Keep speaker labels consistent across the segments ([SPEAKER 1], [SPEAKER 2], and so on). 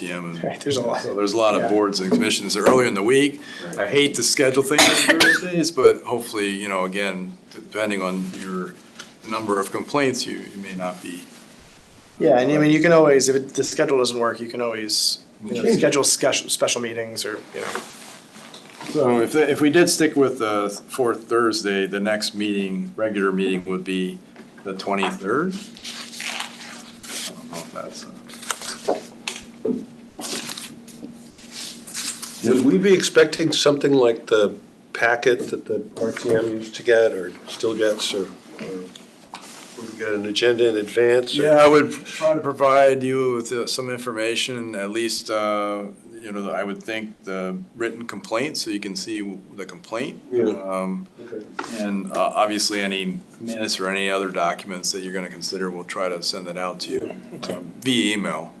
[SPEAKER 1] TM.
[SPEAKER 2] Right,
[SPEAKER 1] and-
[SPEAKER 2] there's a lot.
[SPEAKER 1] So there's a lot
[SPEAKER 2] Yeah.
[SPEAKER 1] of boards and commissions earlier in the week. I hate to schedule things on Thursdays, but hopefully, you know, again, depending on your number of complaints, you you may not be.
[SPEAKER 2] Yeah, and I mean, you can always, if it- the schedule doesn't work, you can always, you know,
[SPEAKER 1] Change it.
[SPEAKER 2] schedule special, special meetings or, you know.
[SPEAKER 1] So if, if we did stick with the fourth Thursday, the next meeting, regular meeting would be the 23rd? I don't know if that's, uh,
[SPEAKER 3] Would we be expecting something like the packet that the RTM used to get or still gets or or would we get an agenda in advance? or-
[SPEAKER 1] Yeah, I would try to provide you with uh, some information, at least, uh, you know, I would think the written complaint, so you can see the complaint.
[SPEAKER 3] Yeah.
[SPEAKER 1] Um,
[SPEAKER 3] Okay.
[SPEAKER 1] And uh, obviously, any minutes or any other documents that you're going to consider, we'll try to send that out to you um, via email.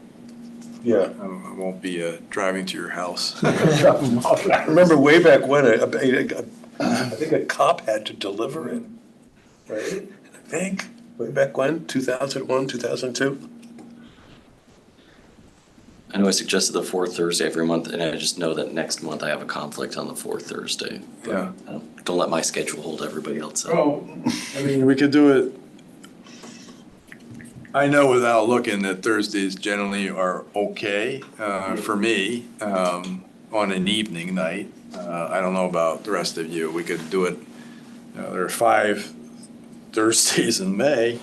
[SPEAKER 3] Yeah.
[SPEAKER 1] Um, I won't be uh, driving to your house.
[SPEAKER 3] I remember way back when, a- a- a- I think a cop had to deliver it, right? I think, way back when, 2001, 2002?
[SPEAKER 4] I know I suggested the fourth Thursday every month, and I just know that next month I have a conflict on the fourth Thursday. But
[SPEAKER 1] Yeah.
[SPEAKER 4] I Don't, don't let my schedule hold everybody else up.
[SPEAKER 1] Well, I mean, we could do it. I know without looking that Thursdays generally are okay uh, for me um, on an evening night. Uh, I don't know about the rest of you. We could do it, uh, there are five Thursdays in May.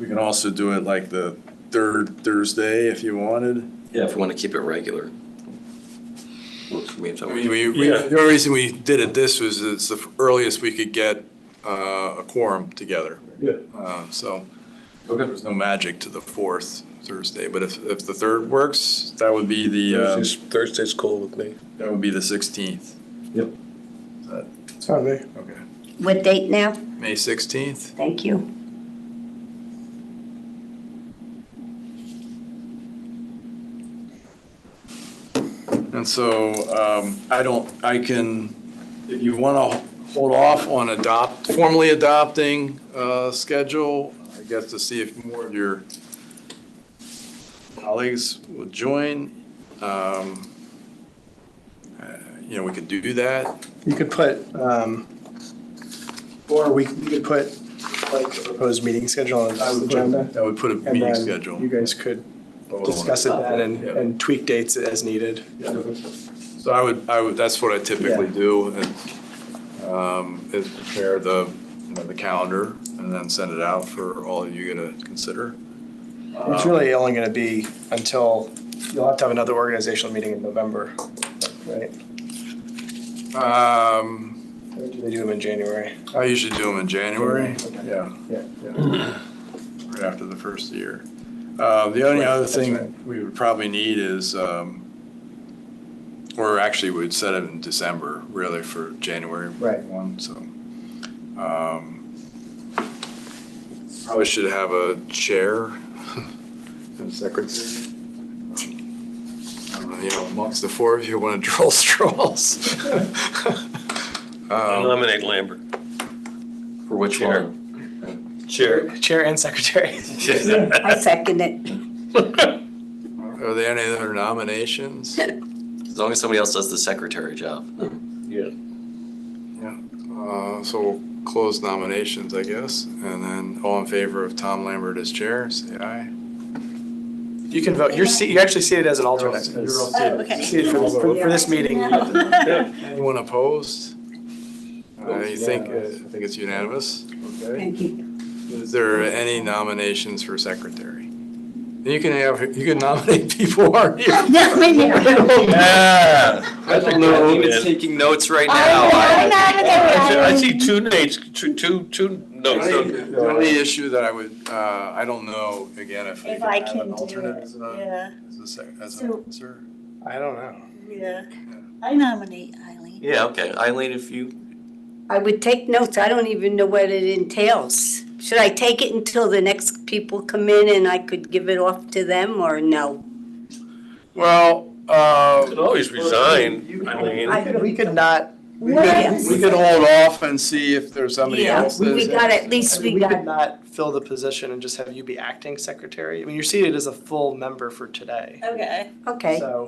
[SPEAKER 1] We can also do it like the third Thursday if you wanted.
[SPEAKER 4] Yeah, if we want to keep it regular. Works for me if I
[SPEAKER 1] I
[SPEAKER 4] want.
[SPEAKER 1] mean, we, we,
[SPEAKER 3] Yeah.
[SPEAKER 1] the only reason we did it this was it's the earliest we could get uh, a quorum together.
[SPEAKER 3] Yeah.
[SPEAKER 1] Uh, So there's no magic to the fourth Thursday, but if, if the third works, that would be the, uh,
[SPEAKER 3] Thursday's- Thursday's cool with me.
[SPEAKER 1] that would be the 16th.
[SPEAKER 3] Yep.
[SPEAKER 1] Okay.
[SPEAKER 5] What date now?
[SPEAKER 1] May 16th?
[SPEAKER 5] Thank you.
[SPEAKER 1] And so um, I don't, I can, if you want to hold off on adopt, formally adopting uh, schedule, I guess to see if more of your colleagues will join, um, uh, you know, we could do that.
[SPEAKER 2] You could put, um, or we, you could put like a proposed meeting schedule on
[SPEAKER 1] I
[SPEAKER 2] the
[SPEAKER 1] would put-
[SPEAKER 2] agenda.
[SPEAKER 1] I would put a
[SPEAKER 2] And
[SPEAKER 1] meeting
[SPEAKER 2] then
[SPEAKER 1] schedule.
[SPEAKER 2] you guys could
[SPEAKER 1] vote on it.
[SPEAKER 2] discuss it then and,
[SPEAKER 1] Yeah.
[SPEAKER 2] and tweak dates as needed.
[SPEAKER 1] So I would, I would, that's what I typically do, and, um, is prepare the, you know, the calendar, and then send it out for all of you to consider. Uh,
[SPEAKER 2] It's really only gonna be until, you'll have to have another organizational meeting in November, right?
[SPEAKER 1] Um,
[SPEAKER 2] Or do they do them in January?
[SPEAKER 1] I usually do them in January,
[SPEAKER 2] Okay.
[SPEAKER 1] yeah,
[SPEAKER 2] Yeah.
[SPEAKER 1] right after the first year. Uh, the only
[SPEAKER 2] Right,
[SPEAKER 1] other
[SPEAKER 2] that's
[SPEAKER 1] thing
[SPEAKER 2] right.
[SPEAKER 1] we would probably need is, um, or actually we'd set it in December, really, for January
[SPEAKER 2] Right.
[SPEAKER 1] one, so. um, Probably should have a chair and secretary. I don't know, You know, amongst the four of you, want to draw straws?
[SPEAKER 3] I
[SPEAKER 4] Um,
[SPEAKER 3] nominate Lambert.
[SPEAKER 4] For which
[SPEAKER 3] Sure.
[SPEAKER 4] one?
[SPEAKER 3] Chair.
[SPEAKER 2] Chair and secretary.
[SPEAKER 5] I second it.
[SPEAKER 1] Are there any other nominations?
[SPEAKER 4] As long as somebody else does the secretary job.
[SPEAKER 3] Yeah.
[SPEAKER 1] Yeah, uh, so we'll close nominations, I guess, and then all in favor of Tom Lambert as chair, say aye.
[SPEAKER 2] You can vote, you're se, you're actually seated as an alternate.
[SPEAKER 1] You're all
[SPEAKER 5] Oh,
[SPEAKER 2] You're
[SPEAKER 1] seated.
[SPEAKER 2] Seated for, for for this meeting.
[SPEAKER 1] Anyone opposed? I think, I think it's unanimous. Okay.
[SPEAKER 5] Thank you.
[SPEAKER 1] Is there any nominations for secretary? And You can have, you can nominate people who aren't here.
[SPEAKER 5] No, I know.
[SPEAKER 4] I don't know.
[SPEAKER 3] David's
[SPEAKER 4] taking notes right
[SPEAKER 5] I know, I know.
[SPEAKER 3] two names, two, two, two
[SPEAKER 1] The only- The only issue that I would, uh, I don't know, again, if we
[SPEAKER 6] If
[SPEAKER 1] can
[SPEAKER 6] I
[SPEAKER 1] have
[SPEAKER 6] can
[SPEAKER 1] an
[SPEAKER 6] do
[SPEAKER 1] alternate
[SPEAKER 6] it,
[SPEAKER 1] as
[SPEAKER 5] uh,
[SPEAKER 1] a,
[SPEAKER 6] yeah,
[SPEAKER 1] as a, sec- as
[SPEAKER 6] So-
[SPEAKER 1] a, sir.
[SPEAKER 2] I don't know.
[SPEAKER 6] yeah. I nominate Eileen.
[SPEAKER 4] Yeah, okay. Eileen, if you,
[SPEAKER 5] I would take notes. I don't even know what it entails. Should I take it until the next people come in and I could give it off to them or no?
[SPEAKER 1] Well, uh.
[SPEAKER 3] Always resign,
[SPEAKER 2] I could, we could not,
[SPEAKER 1] We could,
[SPEAKER 5] Yes.
[SPEAKER 1] we could hold off and see if there's somebody
[SPEAKER 5] Yeah,
[SPEAKER 1] else that's.
[SPEAKER 5] we got, at least
[SPEAKER 2] I mean,
[SPEAKER 5] we
[SPEAKER 2] we
[SPEAKER 5] got
[SPEAKER 2] could not fill the position and just have you be acting secretary. I mean, you're seated as a full member for today.
[SPEAKER 6] Okay.
[SPEAKER 5] Okay.
[SPEAKER 2] So